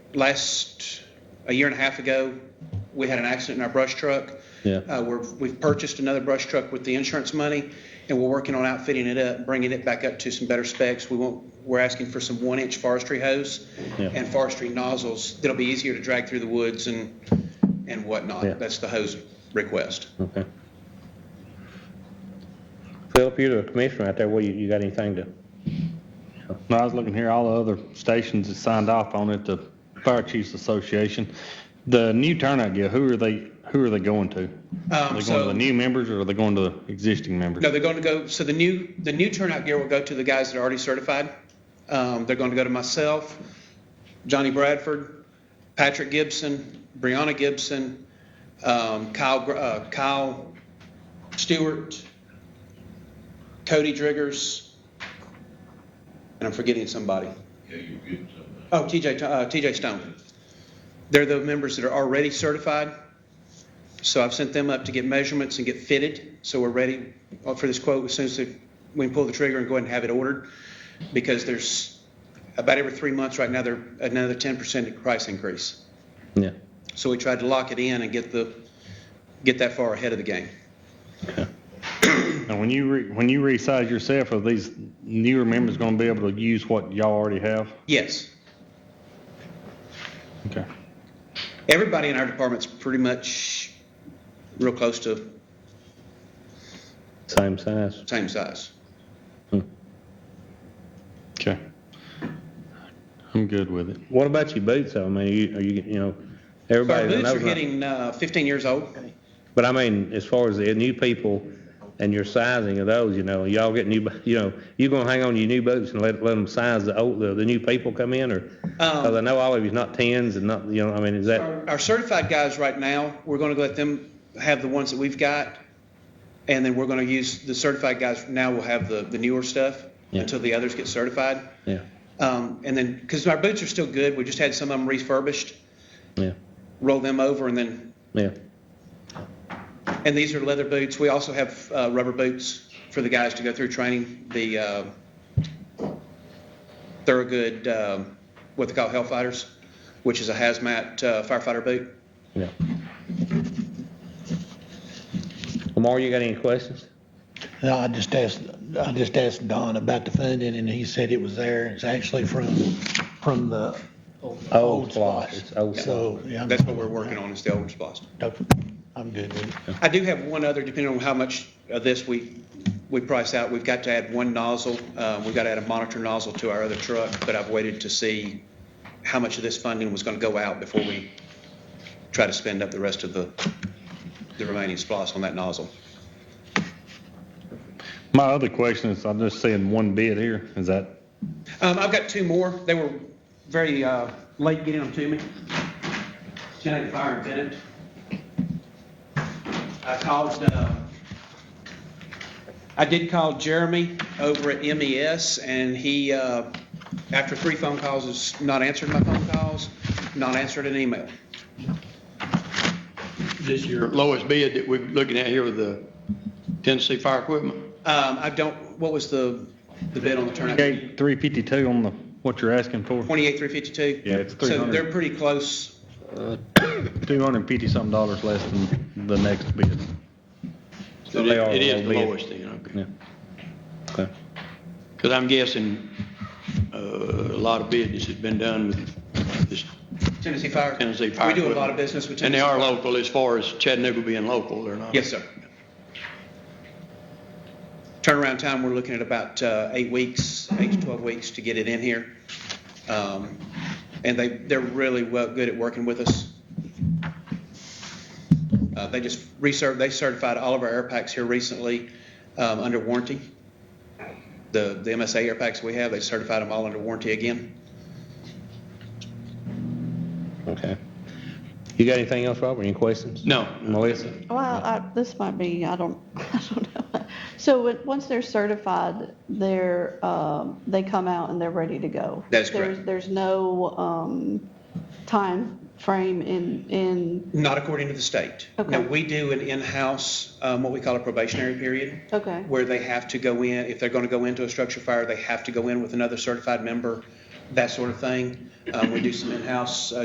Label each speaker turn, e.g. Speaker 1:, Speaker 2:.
Speaker 1: last, a year and a half ago, we had an accident in our brush truck.
Speaker 2: Yeah.
Speaker 1: Uh, we're, we've purchased another brush truck with the insurance money, and we're working on outfitting it up, bringing it back up to some better specs. We want, we're asking for some one-inch forestry hose
Speaker 2: Yeah.
Speaker 1: and forestry nozzles that'll be easier to drag through the woods and, and
Speaker 2: Yeah.
Speaker 1: whatnot. That's the hose request.
Speaker 2: Okay. Philip, you're the commissioner out there, what, you, you got anything to,
Speaker 3: No, I was looking here, all the other stations that signed off on it, the Fire Chiefs Association. The new turnout gear, who are they, who are they going to? Are they going to
Speaker 1: Um, so-
Speaker 3: the new members or are they going to the existing members?
Speaker 1: No, they're going to go, so the new, the new turnout gear will go to the guys that are already certified. Um, They're going to go to myself, Johnny Bradford, Patrick Gibson, Brianna Gibson, um, Kyle, Gr- uh, Kyle Stewart, Cody Driggers, and I'm forgetting somebody.
Speaker 4: Yeah, you're getting something.
Speaker 1: Oh, TJ, uh, TJ Stone. They're the members that are already certified. So I've sent them up to get measurements and get fitted. So we're ready for this quote as soon as the- we can pull the trigger and go ahead and have it ordered. Because there's about every three months right now, there another 10% price increase.
Speaker 2: yeah,
Speaker 1: So we tried to lock it in and get the, get that far ahead of the game.
Speaker 3: And when you, re- when you resize yourself, are these newer members going to be able to use what y'all already have?
Speaker 1: Yes.
Speaker 3: Okay.
Speaker 1: Everybody in our department's pretty much real close to
Speaker 2: same size.
Speaker 1: same size.
Speaker 3: Okay. I'm good with it.
Speaker 2: What about your boots, though, I mean, you, are you, you know,
Speaker 1: Our
Speaker 2: everybody's an
Speaker 1: boots are
Speaker 2: overnight.
Speaker 1: hitting uh, 15 years old.
Speaker 2: But I mean, as far as the new people and your sizing of those, you know, y'all get new, you know, you gonna hang on to your new boots and let, let them size the old, the, the new people come in, or?
Speaker 1: Um,
Speaker 2: Cause I know all of you's not tens and not, you know, I mean, is that,
Speaker 1: Our our certified guys right now, we're going to let them have the ones that we've got, and then we're going to use, the certified guys now will have the the newer stuff
Speaker 2: Yeah.
Speaker 1: until the others get certified.
Speaker 2: yeah,
Speaker 1: Um, And then, because our boots are still good, we just had some of them refurbished,
Speaker 2: yeah,
Speaker 1: roll them over, and then,
Speaker 2: yeah,
Speaker 1: and these are leather boots. We also have uh, rubber boots for the guys to go through training, the uh, Thorogood, um, what they call Hellfighters, which is a hazmat uh, firefighter boot.
Speaker 2: yeah. Lamar, you got any questions?
Speaker 5: No, I just asked, I just asked Don about the funding, and he said it was there. It's actually from, from the old
Speaker 2: splosh.
Speaker 5: splosh.
Speaker 2: It's old
Speaker 5: So, yeah. I'm-
Speaker 1: That's what we're working on, is the old splosh.
Speaker 5: I'm good with it.
Speaker 1: I do have one other, depending on how much of this we, we price out, we've got to add one nozzle. Uh, We've got to add a monitor nozzle to our other truck, but I've waited to see how much of this funding was going to go out before we try to spend up the rest of the, the remaining splosh on that nozzle.
Speaker 3: My other question is, I'm just seeing one bid here. Is that,
Speaker 1: Um, I've got two more. They were very uh, late getting them to me. Genetic fire invented. I called, uh, I did call Jeremy over at MES, and he, uh, after three phone calls, has not answered my phone calls, not answered an email.
Speaker 6: This is your lowest bid that we're looking at here with the Tennessee Fire Equipment.
Speaker 1: Um, I don't, what was the, the bid on the turnout?
Speaker 3: okay, 352 on the, what you're asking for?
Speaker 1: 28,352?
Speaker 3: Yeah, it's
Speaker 1: So
Speaker 3: 300.
Speaker 1: they're pretty close.
Speaker 3: Two hundred and fifty something dollars less than the next bid.
Speaker 2: So they are
Speaker 6: It is
Speaker 2: low
Speaker 6: the
Speaker 2: bid.
Speaker 6: lowest then, okay.
Speaker 2: Yeah. Okay,
Speaker 6: Because I'm guessing uh, a lot of business has been done with this
Speaker 1: Tennessee Fire?
Speaker 6: Tennessee Fire
Speaker 1: We do a lot
Speaker 6: Equipment.
Speaker 1: of business with
Speaker 6: And
Speaker 1: Tennessee.
Speaker 6: they are
Speaker 1: Fire.
Speaker 6: local as far as Chattanooga being local, they're not.
Speaker 1: Yes, sir. Turnaround time, we're looking at about uh, eight weeks, eight to 12 weeks to get it in here. Um, And they, they're really well, good at working with us. Uh, They just reserved, they certified all of our air packs here recently um, under warranty. The, the MSA air packs we have, they certified them all under warranty again.
Speaker 2: okay. You got anything else, Robert, any questions?
Speaker 6: No.
Speaker 2: Melissa?
Speaker 7: Well, I, this might be, I don't, I don't know. So when- once they're certified, they're, um, they come out and they're ready to go.
Speaker 1: That's correct.
Speaker 7: There's, there's no, um, time frame in, in,
Speaker 1: Not according to the state.
Speaker 7: Okay.
Speaker 1: Now, we do an in-house, um, what we call a probationary period.
Speaker 7: okay,
Speaker 1: where they have to go in, if they're going to go into a structure fire, they have to go in with another certified member, that sort of thing. Um, We do some in-house uh,